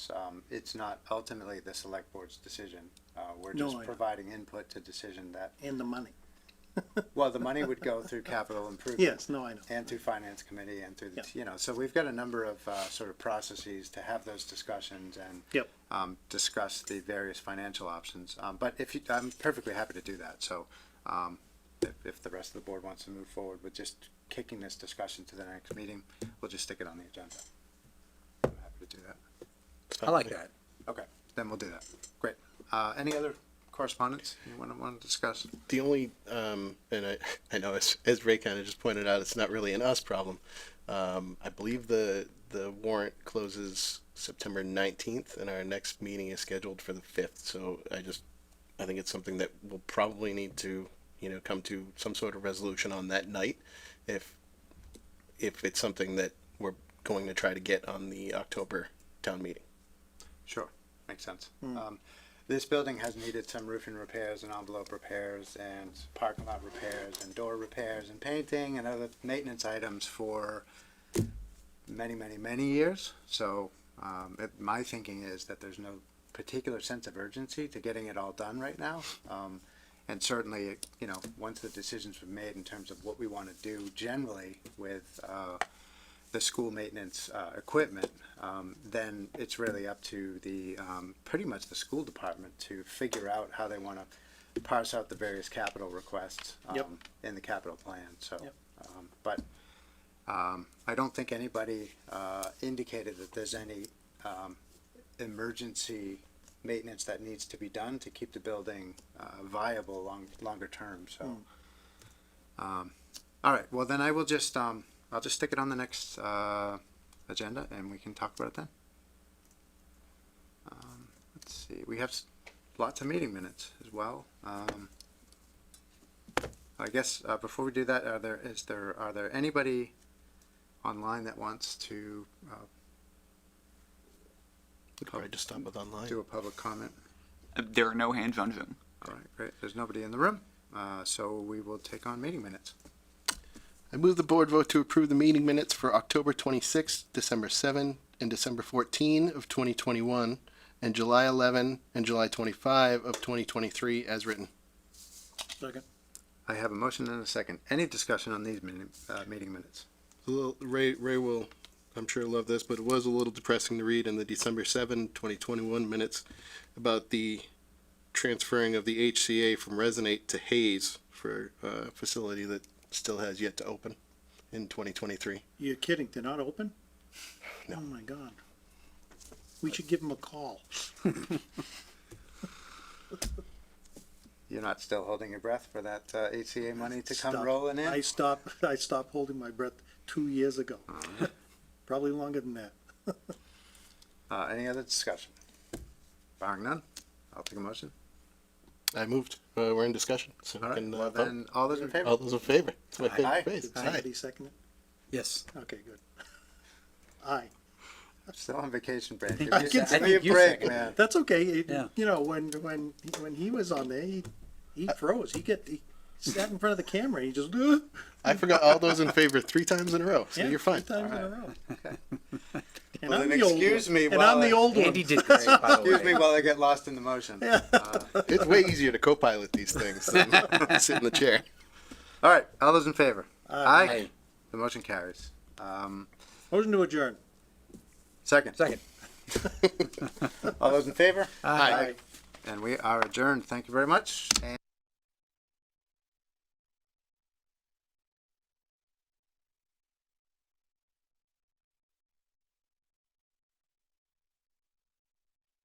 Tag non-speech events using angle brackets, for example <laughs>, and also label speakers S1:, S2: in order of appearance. S1: um, it's not ultimately the select board's decision. Uh, we're
S2: No,
S1: just
S2: I know.
S1: providing input to decision that,
S2: and the money.
S1: well, the money would go through capital improvement.
S2: Yes, no, I know.
S1: And through finance committee and through, the
S2: Yeah.
S1: you know, so we've got a number of, uh, sort of processes to have those discussions and.
S2: Yep.
S1: Um, discuss the various financial options, um, but if you, I'm perfectly happy to do that, so, um, if, if the rest of the board wants to move forward with just kicking this discussion to the next meeting, we'll just stick it on the agenda. I'm happy to do that.
S3: I like that.
S1: Okay, then we'll do that. Great. Uh, any other correspondence you want to, want to discuss?
S3: The only, um, and I, <laughs> I know as, as Ray kind of just pointed out, it's not really an us problem. Um, I believe the, the warrant closes September 19th and our next meeting is scheduled for the 5th. So I just, I think it's something that we'll probably need to, you know, come to some sort of resolution on that night. If, if it's something that we're going to try to get on the October town meeting.
S1: Sure, makes sense. Um, this building has needed some roofing repairs and envelope repairs and parking lot repairs and door repairs and painting and other maintenance items for many, many, many years. So, um, it, my thinking is that there's no particular sense of urgency to getting it all done right now. Um, and certainly, you know, once the decisions were made in terms of what we want to do generally with, uh, the school maintenance, uh, equipment, um, then it's really up to the, um, pretty much the school department to figure out how they wanna parse out the various capital requests,
S2: Yep.
S1: um, in the capital plan, so.
S2: Yep.
S1: Um, but, um, I don't think anybody, uh, indicated that there's any, um, emergency maintenance that needs to be done to keep the building, uh, viable long, longer term, so. Um, all right, well then I will just, um, I'll just stick it on the next, uh, agenda and we can talk about it then. Um, let's see, we have s- lots of meeting minutes as well. Um, I guess, uh, before we do that, are there, is there, are there anybody online that wants to, uh,
S3: We'll probably just stop with online.
S1: do a public comment?
S4: Uh, There are no hands on Zoom.
S1: All right, great, there's nobody in the room, uh, so we will take on meeting minutes.
S3: I move the board vote to approve the meeting minutes for October 26, December 7, and December 14 of 2021, and July 11 and July 25 of 2023 as written.
S2: Second.
S1: I have a motion and a second. Any discussion on these meeting, uh, meeting minutes?
S3: Ray, Ray will, I'm sure, love this, but it was a little depressing to read in the December 7, 2021 minutes about the transferring of the HCA from Resonate to Hayes for a facility that still has yet to open in 2023.
S2: You're kidding, they're not open?
S3: No.
S2: Oh my God. We should give them a call.
S1: You're not still holding your breath for that uh, HCA money to come
S2: Stop.
S1: rolling
S2: I
S1: in?
S2: stopped, <laughs> I stopped holding my breath two years ago. <laughs> Probably longer than that.
S1: Uh, any other discussion? Barring none, I'll take a motion.
S3: I moved. Uh, we're in discussion. So we
S1: All right,
S3: can, uh,
S1: well
S3: vote. Oh.
S1: then, all those in favor?
S3: All those in favor? It's my
S1: Aye.
S3: favorite phrase.
S2: Did
S3: Aye.
S2: somebody second it?
S5: Yes.
S2: Okay, good. <laughs> Aye.
S1: I'm Still on vacation break. Give
S2: I
S1: me-
S2: can
S1: Give me a
S5: you
S1: break,
S5: second.
S1: man.
S2: That's okay. It-
S5: Yeah.
S2: You know, when, when, when he was on there, he, he
S1: Uh,
S2: froze. He get, he sat in front of the camera. He just, <laughs> uh,
S3: I forgot all those in favor three times in a row, so
S2: yeah, <laughs>
S3: you're fine.
S2: three times in a row. And
S1: Well,
S2: I'm
S1: then
S2: the old
S1: excuse
S2: one.
S1: me
S2: And
S1: while
S2: I'm the
S1: I-
S2: old one.
S5: Andy did great, by
S1: <laughs>
S5: the
S1: Excuse me
S5: way.
S1: while I get lost in the motion. Uh,
S3: It's way easier to co-pilot these things than sit in the chair.
S1: All right, all those in favor? Aye.
S5: Aye.
S1: The motion carries. Um,
S2: Motion to adjourn.
S1: Second,
S5: Second.
S1: <laughs> all those in favor?
S3: Aye.
S1: And we are adjourned. Thank you very much. and-